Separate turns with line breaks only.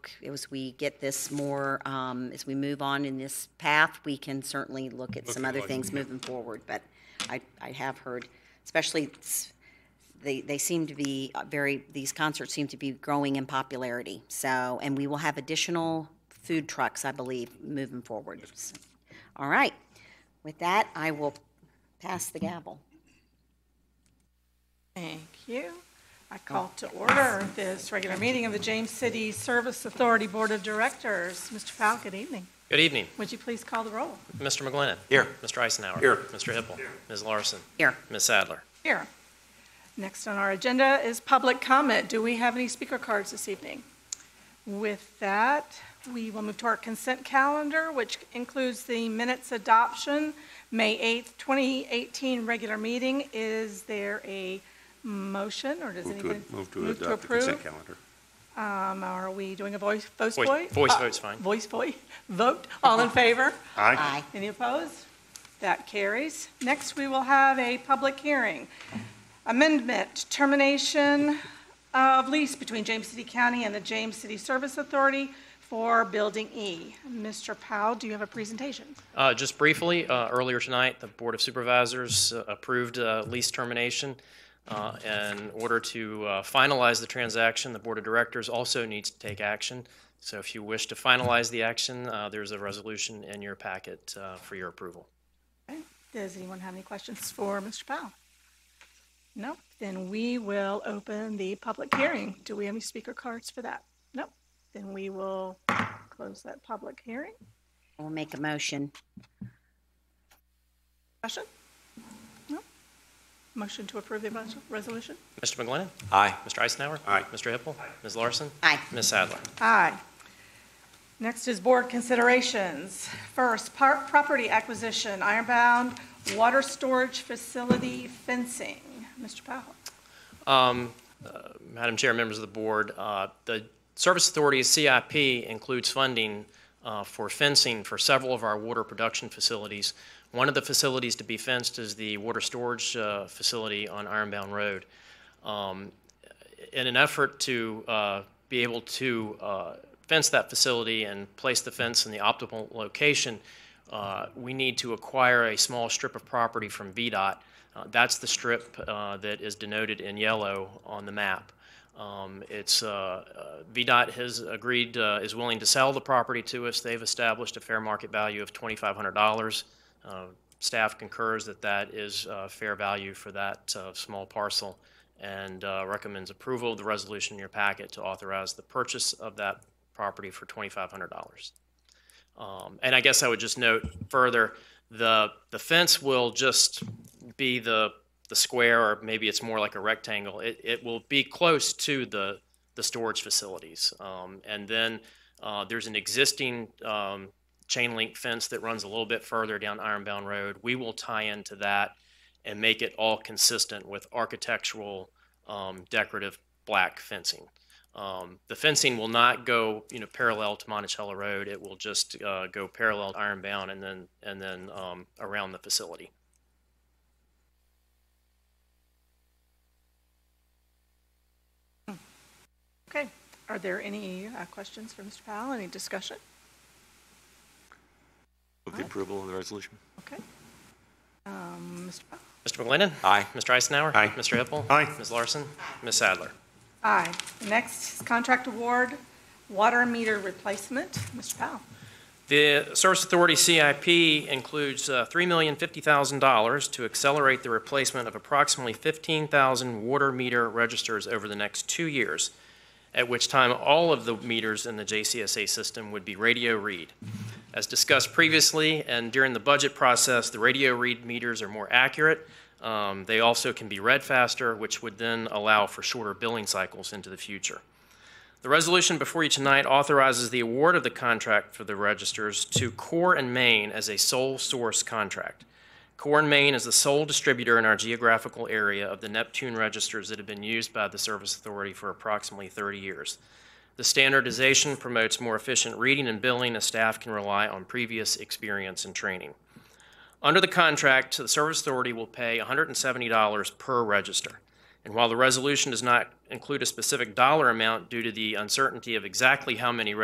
as we get this more, um, as we move on in this path, we can certainly look at some
at
other
like-
things moving forward. But I, I have heard, especially, s- they, they seem to be uh, very, these concerts seem to be growing in popularity. So, and we will have additional food trucks, I believe, moving forward. All right. With that, I will pass the gavel.
Thank you. I call to order this regular meeting of the James City Service Authority Board of Directors. Mr. Powell, good evening.
Good evening.
Would you please call the roll?
Mr. McGlinnan.
Here.
Mr. Eisenhower.
Here.
Mr. Hippel. Ms. Larson.
Here.
Ms. Sadler.
Here. Next on our agenda is public comment. Do we have any speaker cards this evening? With that, we will move to our consent calendar, which includes the minutes adoption. May 8th, 2018 regular meeting. Is there a motion or does
Move to,
anybody?
ad- move to adopt the consent calendar.
Um, are we doing a voice, voice
Voice-
vote?
voice
Uh,
vote's fine.
Voice vote, vote, all in favor?
Aye.
Any opposed? That carries. Next, we will have a public hearing. Amendment, termination of lease between James City County and the James City Service Authority for Building E. Mr. Powell, do you have a presentation?
Uh, Just briefly, uh, earlier tonight, the Board of Supervisors uh, approved uh, lease termination. Uh, In order to uh, finalize the transaction, the Board of Directors also needs to take action. So if you wish to finalize the action, uh, there's a resolution in your packet uh, for your approval.
Does anyone have any questions for Mr. Powell? No? Then we will open the public hearing. Do we have any speaker cards for that? No? Then we will close that public hearing.
I will make a motion.
Question? No? Motion to approve the res- resolution?
Mr. McGlinnan.
Aye.
Mr. Eisenhower.
Aye.
Mr. Hippel. Ms. Larson.
Aye.
Ms. Sadler.
Aye. Next is board considerations. First, par- property acquisition, Ironbound Water Storage Facility fencing. Mr. Powell?
Um, uh, Madam Chair, members of the board, uh, the Service Authority's CIP includes funding uh, for fencing for several of our water production facilities. One of the facilities to be fenced is the water storage uh, facility on Ironbound Road. Um, in an effort to uh, be able to uh, fence that facility and place the fence in the optimal location, uh, we need to acquire a small strip of property from VDOT. Uh, That's the strip uh, that is denoted in yellow on the map. Um, It's, uh, uh, VDOT has agreed, uh, is willing to sell the property to us. They've established a fair market value of $2,500. Uh, Staff concurs that that is uh, fair value for that uh, small parcel and uh, recommends approval of the resolution in your packet to authorize the purchase of that property for $2,500. Um, And I guess I would just note further, the, the fence will just be the, the square, or maybe it's more like a rectangle. It, it will be close to the, the storage facilities. Um, And then uh, there's an existing um, chain link fence that runs a little bit further down Ironbound Road. We will tie into that and make it all consistent with architectural um, decorative black fencing. Um, the fencing will not go, you know, parallel to Monticello Road. It will just uh, go parallel to Ironbound and then and then um, around the facility.
Okay, are there any uh, questions for Mr. Powell, any discussion?
Move the approval of the resolution.
Okay. Um, Mr. Powell?
Mr. McGlinnan.
Aye.
Mr. Eisenhower.
Aye.
Mr. Hippel.
Aye.
Ms. Larson. Ms. Sadler.
Aye. Next is contract award, water meter replacement. Mr. Powell?
The Service Authority CIP includes uh, $3,050,000 to accelerate the replacement of approximately 15,000 water meter registers over the next two years, at which time all of the meters in the JCSA system would be radio read. As discussed previously and during the budget process, the radio read meters are more accurate. Um, They also can be read faster, which would then allow for shorter billing cycles into the future. The resolution before you tonight authorizes the award of the contract for the registers to Core and Maine as a sole source contract. Core and Maine is the sole distributor in our geographical area of the Neptune registers that have been used by the Service Authority for approximately 30 years. The standardization promotes more efficient reading and billing as staff can rely on previous experience and training. Under the contract, the Service Authority will pay $170 per register. And while the resolution does not include a specific dollar amount due to the uncertainty of exactly how many